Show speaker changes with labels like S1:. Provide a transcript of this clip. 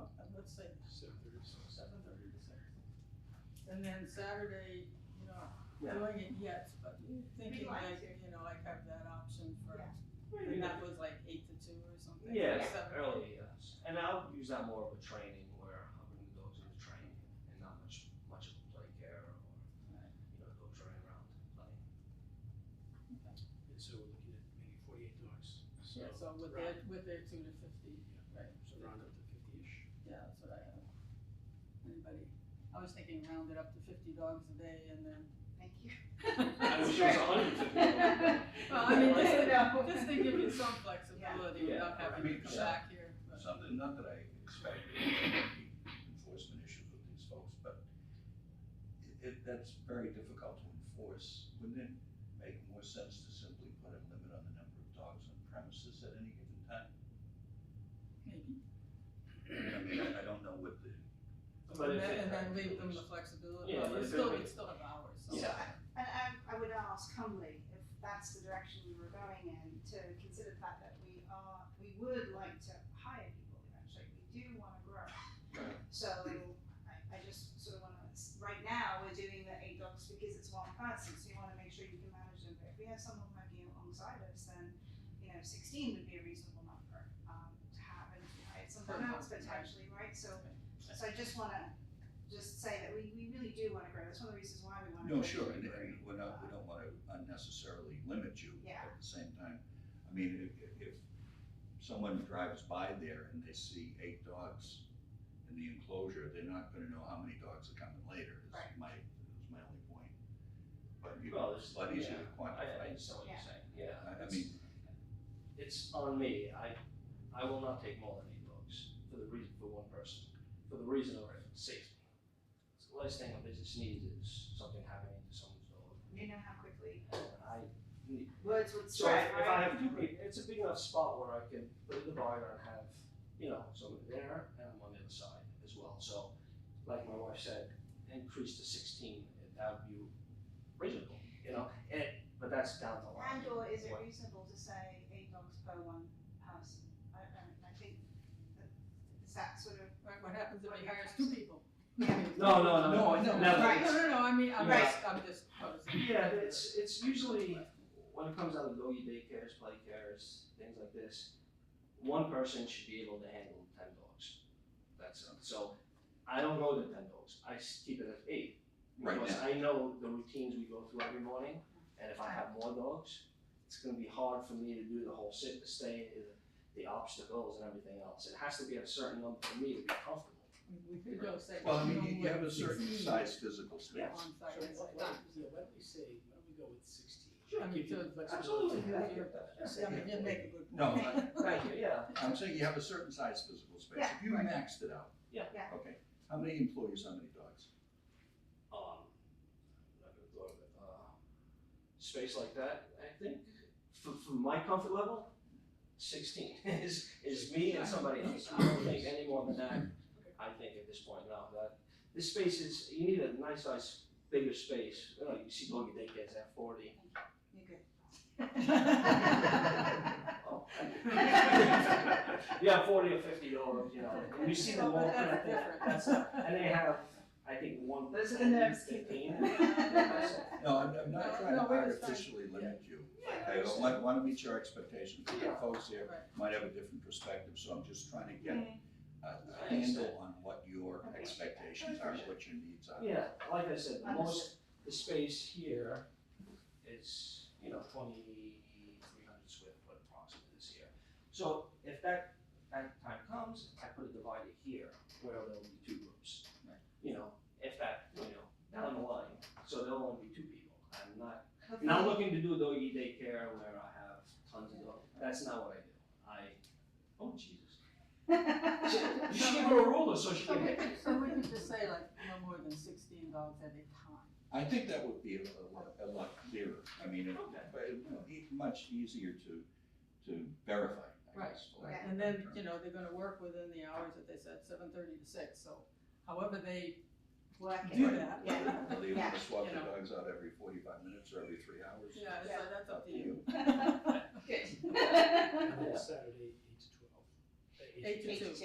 S1: six,
S2: Seven thirty-six.
S1: seven thirty to six. And then Saturday, you know, not doing it yet, but thinking
S3: like
S1: like,
S3: to.
S1: you know, like have that option for,
S3: Yeah.
S1: and that was like eight to two or something. or
S4: Yes,
S1: seven.
S4: early, yes. And I'll use that more of a training where I bring the dogs into training and not much, much of a play care or, you know, dogs running around playing.
S2: And so we're looking at maybe forty-eight dogs.
S1: Yeah, so with
S2: round-
S1: their, with their two to fifty, right,
S2: So round up to fifty-ish.
S1: yeah, that's what I have. Anybody, I was thinking round it up to fifty dogs a day and then,
S3: Thank you.
S4: I wish it was 150.
S1: well, I mean, just
S3: No.
S1: to, just to give you some flexibility
S4: Yeah.
S1: without
S5: Yeah.
S1: having to
S5: Yeah.
S1: come back here, but.
S5: Something, not that I expect enforcement issues with these folks, but it, it, that's very difficult to enforce. Wouldn't it make more sense to simply put a limit on the number of dogs on premises at any given time?
S1: Maybe.
S5: I mean, I I don't know what the,
S1: And
S4: But if
S1: then,
S4: it-
S1: and then leave them the flexibility,
S4: Yeah,
S1: well,
S4: but
S1: we
S4: if
S1: still, we
S4: it-
S1: still have hours, so.
S3: So,
S4: Yeah.
S3: I- and um, I, I would ask humbly if that's the direction we were going in, to consider the fact that we are, we would like to hire people eventually, we do wanna grow.
S4: Right.
S3: So, I, I just sort of wanna, right now, we're doing the eight dogs because it's one person, so you wanna make sure you can manage them, but if we have someone working alongside us, then, you know, sixteen would be a reasonable number, um, to have, and I- someone else potentially, right, so, so I just wanna, just say that we, we really do wanna grow, that's one of the reasons why we wanna. grow.
S5: no, sure, and, and we're not, we don't wanna unnecessarily limit you.
S3: Yeah.
S5: At the same time, I mean, if, if, if someone drives by there and they see eight dogs in the enclosure, they're not gonna know how many dogs are coming later, is
S3: Right.
S5: my, is my only point. But you,
S4: Well,
S5: it's
S4: it's-
S5: a lot easier to
S4: yeah. I, I
S5: quantify.
S4: understand what you're
S3: Yeah.
S4: saying, yeah.
S5: I- I
S4: It's-
S5: mean-
S4: It's on me, I, I will not take more than eight dogs for the reason, for one person, for the reason of safety. It's the last thing a business needs is something happening to someone's dog,
S3: You know how quickly
S4: and I need
S3: words would
S4: So if,
S3: spread,
S4: if
S3: right?
S4: I have two people, it's a big enough spot where I can put in the barn and have, you know, somebody there and I'm on the other side as well. So, like my wife said, increase to sixteen, and that would be reasonable, you know, and, but that's down the line.
S3: And or is it
S4: What-
S3: reasonable to say eight dogs per one person? I, I, I think that, is that sort of,
S1: Right, what happens if he hires two people? No,
S4: No, no, no.
S5: No, I know.
S4: Never.
S3: Right.
S1: No, no, no, I mean, I'm
S4: Right.
S1: just, I'm just posing.
S4: Yeah, it's, it's usually, when it comes down to doggy daycares, play cares, things like this, one person should be able to handle ten dogs. That's it. So I don't go to ten dogs. I s- keep it at eight.
S5: Right
S4: Because
S5: now.
S4: I know the routines we go through every morning, and if I have more dogs, it's gonna be hard for me to do the whole sit, the stay, the- the obstacles and everything else. It has to be at a certain number for me to be comfortable.
S1: We could go say.
S5: Well, I mean, you- you
S1: someone
S5: have a
S1: with
S5: certain
S1: 16
S5: size physical space.
S1: On
S2: So
S1: site, it's
S2: why-
S1: like,
S2: why- yeah, why don't we say, why don't we go with sixteen?
S1: Sure, I mean,
S2: Give you
S1: so-
S2: the flexibility.
S4: Absolutely,
S1: yeah.
S4: yeah.
S1: I mean, you make a good point.
S5: No, I-
S4: Thank you, yeah.
S5: I'm saying you have a certain size physical space.
S3: Yeah,
S5: If you
S3: right.
S5: maxed it out.
S4: Yeah.
S3: Yeah.
S5: Okay, how many employees, how many dogs?
S4: um, uh, space like that, I think, for, for my comfort level, sixteen is, is me and somebody else. I don't think any more than that, I think at this point, no, that, this space is, you need a nice size, bigger space, you know, you see doggy daycares at forty.
S3: you're good.
S4: Oh, Yeah, forty or fifty dollars, you know, and you see them all, and I
S1: That's
S4: think
S1: different.
S4: that's, and they have, I think, one, that's
S3: The nerves
S4: fifteen.
S3: kicking.
S4: That's it.
S5: No, I'm, I'm
S1: No,
S5: not trying
S1: no,
S5: to
S1: we understand.
S5: artificially limit you.
S4: Yeah, I
S5: I
S4: understand.
S5: want, want to meet your expectations, because
S4: Yeah.
S5: the folks here
S1: Right.
S5: might have a different perspective, so I'm just trying to get
S3: Mm.
S5: a- a
S4: I understand.
S5: handle on what your
S3: Okay.
S5: expectations are, and what your needs are.
S4: Yeah, like I said, the most, the space here is, you know, twenty-three hundred square foot approximately this year. So if that, that time comes, I put a divider here where there'll be two groups.
S5: Right.
S4: You know, if that, you know, down the line, so there'll only be two people. I'm not,
S3: Hopefully-
S4: not looking to do doggy daycare where I have tons of dogs. That's not what I do. I, oh Jesus. You should give her a ruler so she
S1: So
S4: can
S1: we
S4: hit.
S1: could, so we could just say like, no more than sixteen dogs at a time.
S5: I think that would be a a lot, a lot clearer. I mean, it-
S4: Okay.
S5: but it would be much easier to, to verify, I
S1: Right,
S5: guess. for
S3: right.
S5: lack of
S1: And
S5: a better
S1: then,
S5: term.
S1: you know, they're gonna work within the hours that they said, seven thirty to six, so however they
S3: Work
S1: do
S3: it.
S1: that.
S3: Yeah.
S5: Whether you want to swap
S1: You
S5: the
S1: know.
S5: dogs out every forty-five minutes or every three hours.
S1: Yeah,
S3: Yeah.
S1: so that's up to you.
S3: Good.
S2: And then Saturday, eight to twelve. Uh,
S1: Eight to
S2: twelve.
S1: two.